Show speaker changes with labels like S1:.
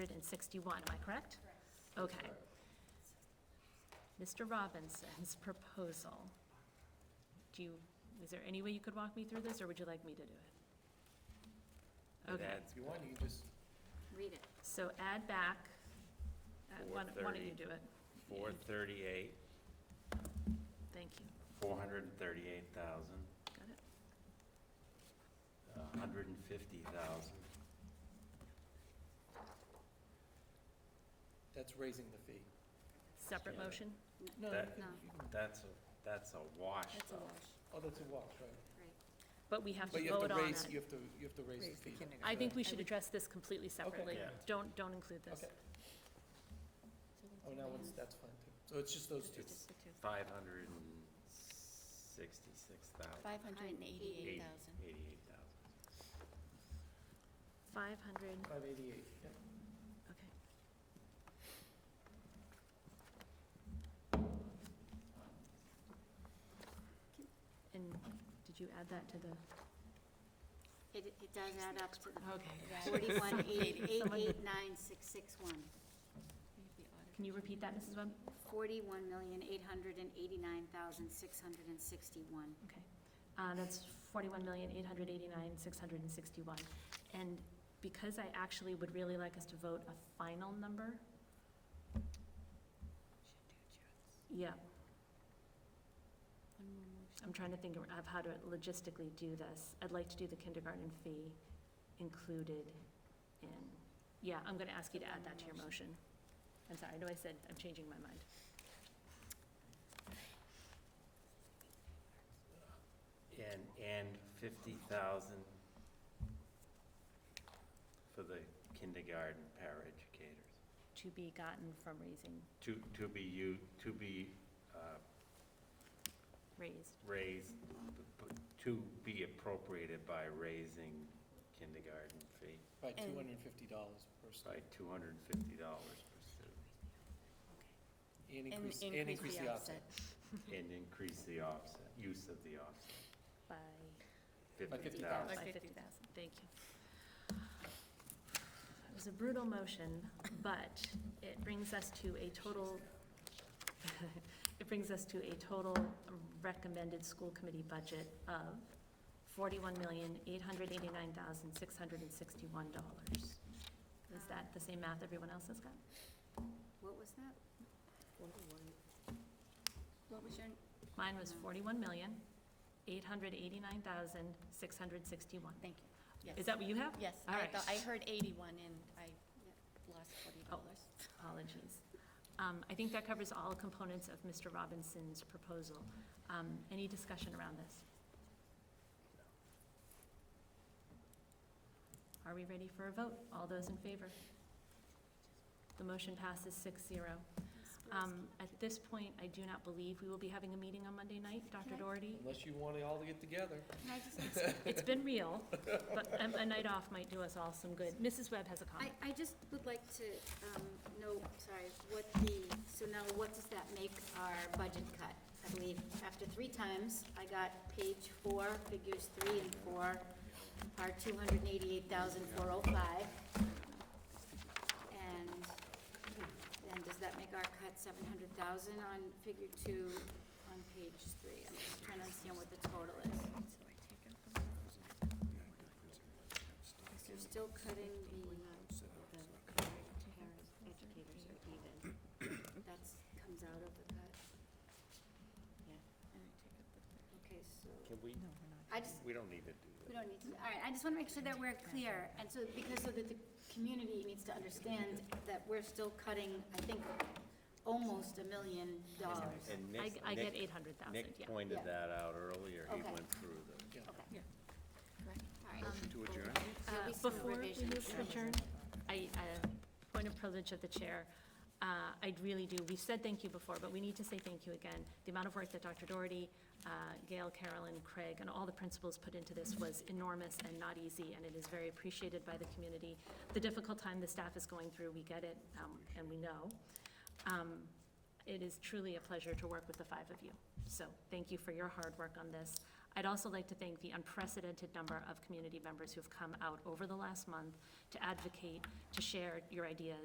S1: and 61, am I correct? Okay. Mr. Robinson's proposal. Do you, is there any way you could walk me through this, or would you like me to do it? Okay,
S2: If you want, you can just,
S3: Read it.
S1: so add back, uh, why don't why don't you
S4: 430.
S1: do it?
S4: 438,
S1: Thank you,
S4: 438,000,
S1: got it?
S4: 150,000.
S2: that's raising the fee.
S1: Separate
S4: Yeah.
S1: motion?
S2: No, you
S4: That-
S2: can, you can,
S4: That's, a that's a wash,
S3: That's a
S4: though.
S3: wash,
S2: oh, that's a wash, right?
S3: right.
S1: But we have
S2: But
S1: to
S2: you have
S1: vote
S2: to
S1: on
S2: raise, you
S1: it.
S2: have to, you have to raise the fee.
S1: I think we should address this completely separately.
S4: Yeah.
S1: Don't, don't include this.
S2: Okay, oh, now it's, that's fine too. So it's just those two.
S5: Just the two.
S4: 566,000.
S5: 588,000.
S4: 88,000.
S1: 500,
S2: Five eighty-eight, yeah.
S1: okay. And did you add that to the?
S3: It, it does add up to the
S1: Okay.
S3: forty-one, eight, eight, eight, nine, six, six, one.
S1: Can you repeat that, Mrs. Webb?
S3: Forty-one million, eight hundred and eighty-nine thousand, six hundred and sixty-one.
S1: Okay. Uh, That's 41,889,661. And because I actually would really like us to vote a final number, yeah,
S5: One more motion.
S1: I'm trying to think of how to logistically do this. I'd like to do the kindergarten fee included in, yeah, I'm going to ask you to add that to your motion. I'm sorry, I know I said, I'm changing my mind.
S4: And, and 50,000 for the kindergarten paraeducators.
S1: To be gotten from raising,
S4: To, to be you, to be uh,
S1: raised.
S4: raised, to be appropriated by raising kindergarten fee
S2: By
S5: And-
S2: two hundred and fifty dollars per
S4: by
S2: student.
S4: $250 per student,
S2: And
S5: And
S2: increase, and increase the offset.
S4: and increase the offset, use of the offset,
S1: By?
S2: By
S4: 50,000.
S1: By 50,000, thank you. It was a brutal motion, but it brings us to a total, it brings us to a total recommended school committee budget of $41,889,661. Is that the same math everyone else has got?
S3: What was that? What was your,
S1: Mine was $41,889,661.
S5: Thank you. Yes.
S1: Is that what you have?
S5: Yes,
S1: All
S5: I
S1: right.
S5: thought, I heard 81 and I
S3: yeah.
S5: lost
S1: Oh,
S5: $40.
S1: apologies. Um, I think that covers all components of Mr. Robinson's proposal. Um, Any discussion around this? Are we ready for a vote? All those in favor? The motion passes 6-0. Um, At this point, I do not believe we will be having a meeting on Monday night, Dr.
S5: I-
S1: Doherty.
S2: Unless you want it all to get together.
S3: Can I just ask-
S1: It's been real, but a a night off might do us all some good. Mrs. Webb has a
S3: I,
S1: comment.
S3: I just would like to um, know, sorry, what the, so now what does that make our budget cut? I believe after three times, I got page four, figures three and four, are 288,405. And then does that make our cut 700,000 on figure two on page three? I'm just trying to understand what the total is.
S5: So I take out the one.
S3: So still cutting the, the parents, educators are even. That's, comes out of the cut.
S5: Yeah. And I take out the third.
S3: Okay, so,
S4: Can we,
S3: I just,
S4: we don't need to do
S3: we don't need to, all right, I just want to make sure that we're clear. And so, because so that the community needs to understand that we're still cutting, I think, almost a million dollars.
S4: that. And Nick-
S1: I- I get
S4: Nick-
S1: 800,000,
S4: Nick
S1: yeah.
S4: pointed
S3: Yeah.
S4: that out earlier, he
S3: Okay.
S4: went through the.
S3: Okay.
S5: Yeah.
S3: All right.
S6: To adjourn?
S3: There'll be
S1: Uh,
S3: some
S1: Before we
S3: revisions.
S1: move to adjourn, I, uh, point of privilege of the chair, uh, I really do, we've said thank you before, but we need to say thank you again. The amount of work that Dr. Doherty, uh, Gail, Carolyn, Craig, and all the principals put into this was enormous and not easy, and it is very appreciated by the community. The difficult time the staff is going through, we get it, um, and we know. Um, It is truly a pleasure to work with the five of you. So thank you for your hard work on this. I'd also like to thank the unprecedented number of community members who've come out over the last month to advocate, to share your ideas.